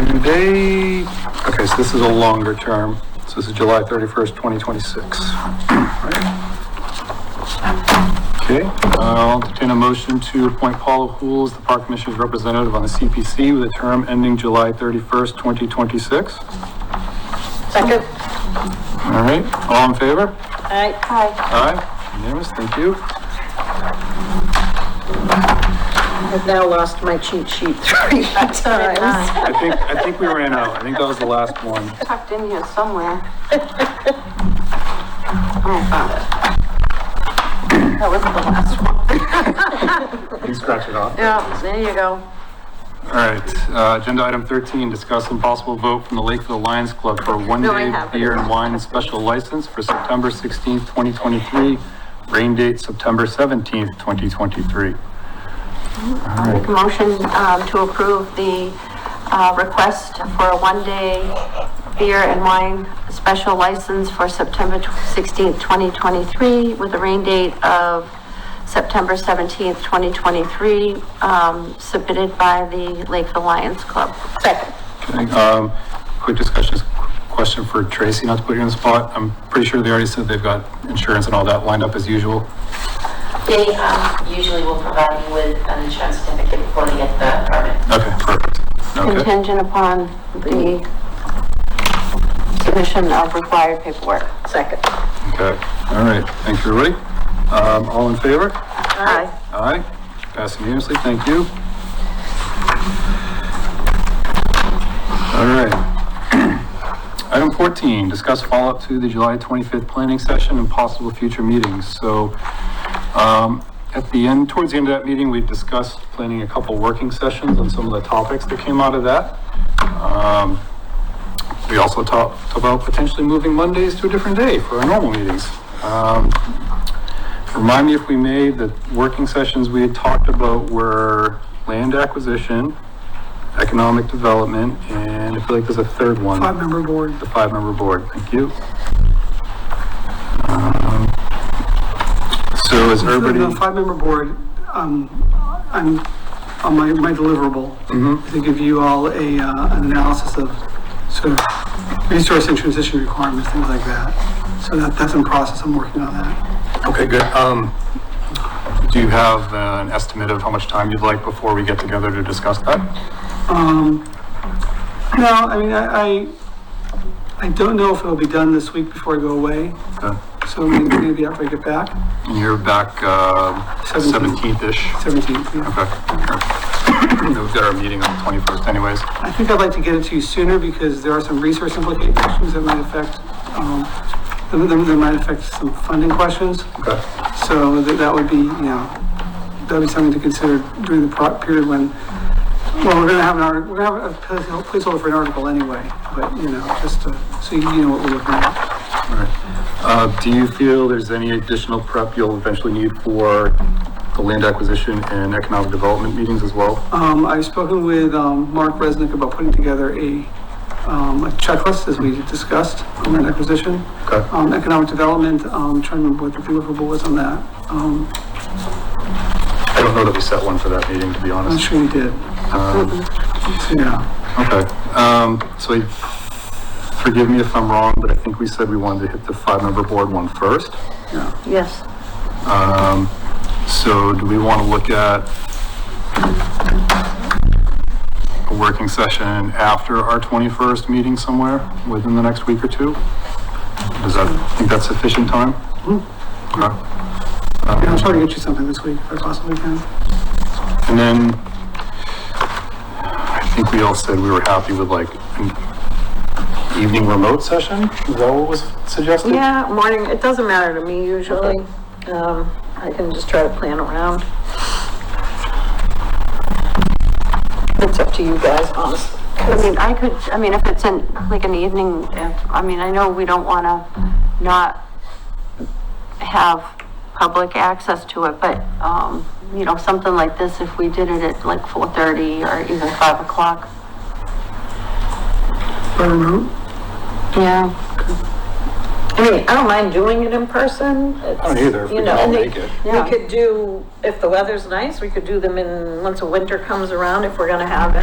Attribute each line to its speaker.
Speaker 1: They, okay, so this is a longer term. So this is July 31st, 2026. Right. Okay, uh, I'll entertain a motion to appoint Paula Hool as the Park Commission's representative on the CPC with a term ending July 31st, 2026.
Speaker 2: Second.
Speaker 1: All right, all in favor?
Speaker 2: Aye. Aye.
Speaker 1: Aye, unanimous, thank you.
Speaker 2: I've now lost my cheat sheet three times.
Speaker 1: I think, I think we ran out. I think that was the last one.
Speaker 3: tucked in here somewhere. Oh, found it. That was the last one.
Speaker 1: You can scratch it off.
Speaker 3: Yeah, there you go.
Speaker 1: All right, uh, agenda item thirteen, discuss impossible vote from the Lakeville Lions Club for a one-day
Speaker 3: have it.
Speaker 1: beer and wine special license for September sixteenth, twenty twenty-three, rain date September seventeenth, twenty twenty-three.
Speaker 3: Make a motion um, to approve the uh, request for a one-day beer and wine special license for September tw- 16th, 2023, with a rain date of September 17th, 2023, um, submitted by the Lakeville Lions Club.
Speaker 2: Second.
Speaker 1: Um, quick discussion, question for Tracy, not to put you on the spot. I'm pretty sure they already said they've got insurance and all that lined up as usual.
Speaker 4: They um, usually will provide you with an insurance certificate before they get the permit.
Speaker 1: Okay, perfect. Okay,
Speaker 3: Contingent upon the submission of required paperwork.
Speaker 2: Second.
Speaker 1: okay. All right, thank you, everybody. Um, all in favor?
Speaker 3: Aye.
Speaker 1: Aye, passing unanimously, thank you. All right. Item 14, discuss follow-up to the July 25th planning session and possible future meetings. So um, at the end, towards the end of that meeting, we discussed planning a couple working sessions on some of the topics that came out of that. Um, We also talked about potentially moving Mondays to a different day for our normal meetings. Um, Remind me if we made the working sessions we had talked about were land acquisition, economic development, and I feel like there's a third one. Five-member board. The five-member board, thank you. Um, So is
Speaker 5: For The
Speaker 1: everybody,
Speaker 5: five-member board, um, I'm, on my, my deliverable, is to give you all a, uh, an analysis of sort of resource and transition requirements, things like that. So that, that's in process, I'm working on that.
Speaker 1: okay, good. Um, do you have uh, an estimate of how much time you'd like before we get together to discuss that?
Speaker 5: No, I mean, I, I, I don't know if it'll be done this week before I go away,
Speaker 1: Okay.
Speaker 5: so maybe, maybe after I get back,
Speaker 1: And you're back, uh,
Speaker 5: Seventeenth.
Speaker 1: seventeenth-ish?
Speaker 5: seventeenth, yeah.
Speaker 1: Okay. We've got our meeting on the twenty-first anyways.
Speaker 5: I think I'd like to get it to you sooner because there are some resource implications that might affect, um, that, that that might affect some funding questions.
Speaker 1: Okay.
Speaker 5: So that, that would be, you know, that'd be something to consider during the pro- period when, well, we're gonna have an article, we're gonna have a place- placeholder for an article anyway, but, you know, just to, so you know what we're looking at.
Speaker 1: All right. Uh, do you feel there's any additional prep you'll eventually need for the land acquisition and economic development meetings as well?
Speaker 5: Um, I've spoken with, um, Mark Resnick about putting together a, um, a checklist, as we discussed, on land acquisition.
Speaker 1: Okay.
Speaker 5: Um, economic development, um, trying to remember what the deliverable was on that. Um,
Speaker 1: I don't know that we set one for that meeting, to be
Speaker 5: I'm
Speaker 1: honest.
Speaker 5: sure we did. So, yeah.
Speaker 1: Okay, um, so I- forgive me if I'm wrong, but I think we said we wanted to hit the five-member board one first.
Speaker 3: Yes.
Speaker 1: Um, so do we want to look at a working session after our 21st meeting somewhere within the next week or two? Does that, think that's sufficient time? Okay.
Speaker 5: Yeah, I'll try to get you something this week if I possibly can.
Speaker 1: And then I think we all said we were happy with like an evening remote session? Is that what was suggested?
Speaker 2: Yeah, morning, it doesn't matter to me usually. Um, I can just try to plan around. It's up to you guys, honestly.
Speaker 3: I mean, I could, I mean, if it's in, like an evening, if, I mean, I know we don't wanna not have public access to it, but, um, you know, something like this, if we did it at like four thirty or even five o'clock.
Speaker 5: By remote?
Speaker 3: Yeah.
Speaker 2: I mean, I don't mind doing it in person. I
Speaker 1: don't either, if we can all make it.
Speaker 3: Yeah.
Speaker 2: We could do, if the weather's nice, we could do them in, once the winter comes around, if we're gonna have